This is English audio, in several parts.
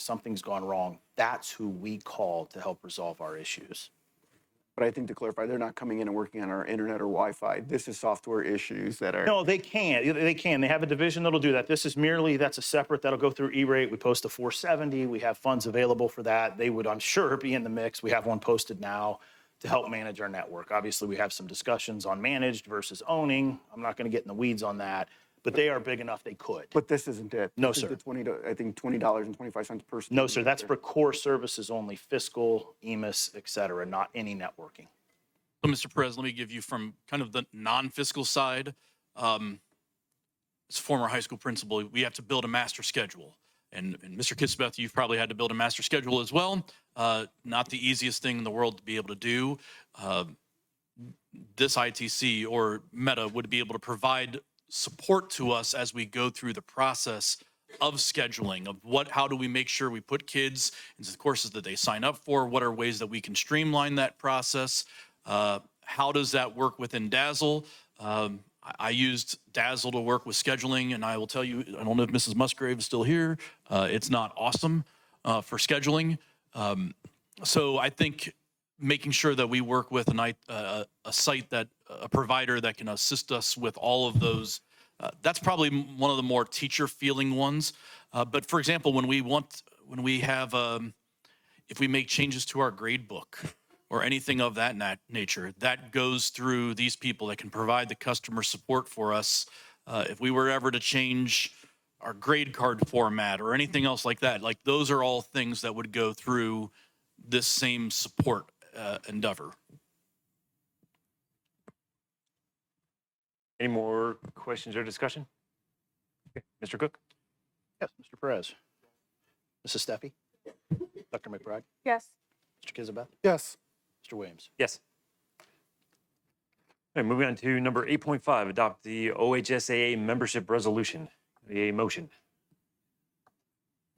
something's gone wrong, that's who we call to help resolve our issues. But I think to clarify, they're not coming in and working on our internet or Wi-Fi. This is software issues that are. No, they can. They can. They have a division that'll do that. This is merely, that's a separate, that'll go through E-rate. We post a 470. We have funds available for that. They would, I'm sure, be in the mix. We have one posted now to help manage our network. Obviously, we have some discussions on managed versus owning. I'm not going to get in the weeds on that, but they are big enough they could. But this isn't it. No, This is sir. The twenty, I think twenty dollars and twenty-five cents per. No, sir, that's for core services only, fiscal, E EMIS, et cetera, not any networking. So, Mr. Perez, let me give you from kind of the non-fiscal side. Um, as a former high school principal, we have to build a master schedule. And, and Mr. Kitsbeth, you've probably had to build a master schedule as well. Uh, not the easiest thing in the world to be able to do. Uh, this ITC or Meta would be able to provide support to us as we go through the process of scheduling of what how do we make sure we put kids into the courses that they sign up for what are ways that we can streamline that process uh, how does that work within dazzle um, I, I used dazzle to work with scheduling and i will tell you i don't know if mrs musgrave is still here uh, it's not awesome uh, for scheduling um, so i think making sure that we work with an, I- uh, a site that a provider that can assist us with all of those. Uh, that's probably m- one of the more teacher feeling ones. Uh, but for example, when we want when we have um, if we make changes to our grade book or anything of that nat- nature, that goes through these people that can provide the customer support for us. Uh, if we were ever to change our grade card format or anything else like that, like those are all things that would go through this same support uh, endeavor. Any more questions or discussion? Okay, Mr. Cook? Yes, Mr. Perez. Mrs. Steffi? Dr. McBride? Yes. Mr. Kizabeth? Yes. Mr. Williams? Yes. All right, moving on to number 8.5, adopt the OHSAA membership resolution. A motion.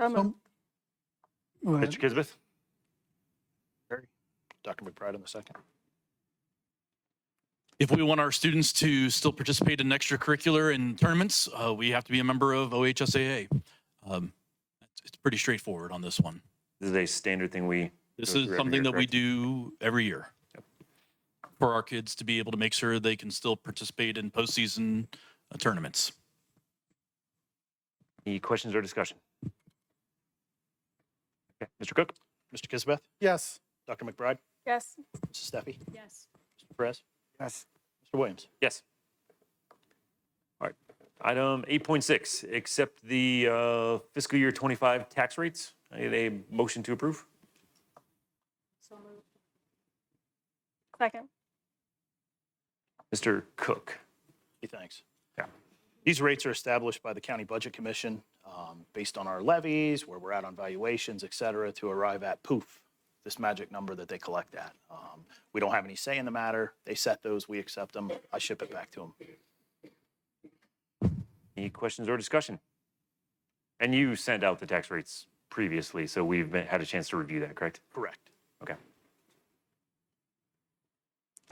So moved. Mr. Kisbeth? Dr. McBride on the second. If we want our students to still participate in extracurricular and tournaments, uh, we have to be a member of OHSAA. Um, it's- it's pretty straightforward on this one. This is a standard thing we. This go is through every something year, that we correct? do every year for our kids to be able to make sure they can still participate in postseason uh, tournaments. Any questions or discussion? Okay, Mr. Cook? Mr. Kizabeth? Yes. Dr. McBride? Yes. Mrs. Steffi? Yes. Mr. Perez? Yes. Mr. Williams? Yes. All right. Item 8.6, accept the uh, fiscal year 25 tax rates. I need a motion to approve. So moved. Second. Mr. Cook. Hey, thanks. Yeah. These rates are established by the County Budget Commission um, based on our levies, where we're at on valuations, et cetera, to arrive at poof, this magic number that they collect at. Um, We don't have any say in the matter. They set those, we accept them, I ship it back to them. Any questions or discussion? And you sent out the tax rates previously, so we've been, had a chance to review that, correct? Correct. Okay.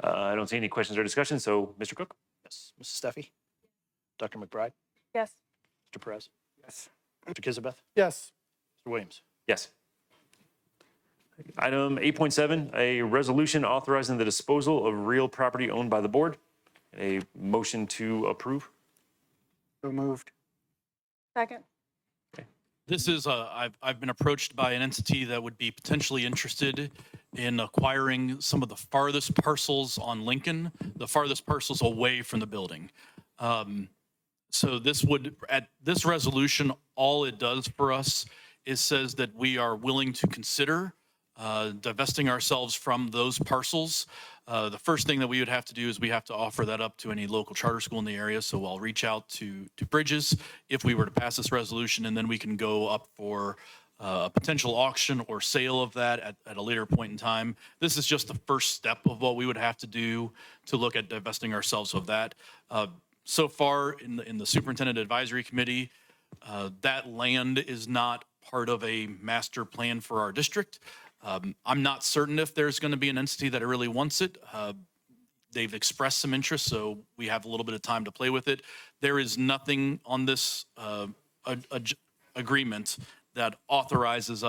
Uh, I don't see any questions or discussion, so Mr. Cook? Yes. Mrs. Steffi? Dr. McBride? Yes. Mr. Perez? Yes. Mr. Kizabeth? Yes. Mr. Williams? Yes. Item 8.7, a resolution authorizing the disposal of real property owned by the board. A motion to approve. So moved. Second. This is a, I've, I've been approached by an entity that would be potentially interested in acquiring some of the farthest parcels on Lincoln, the farthest parcels away from the building. Um, So this would, at this resolution, all it does for us is says that we are willing to consider uh, divesting ourselves from those parcels. Uh, The first thing that we would have to do is we have to offer that up to any local charter school in the area. So I'll reach out to, to Bridges if we were to pass this resolution, and then we can go up for uh, a potential auction or sale of that at, at a later point in time. This is just the first step of what we would have to do to look at divesting ourselves of that. Uh, so far in the, in the superintendent advisory committee, uh, that land is not part of a master plan for our district. Um, I'm not certain if there's going to be an entity that really wants it. Uh, they've expressed some interest, so we have a little bit of time to play with it. There is nothing on this uh, a- a- agreement that authorizes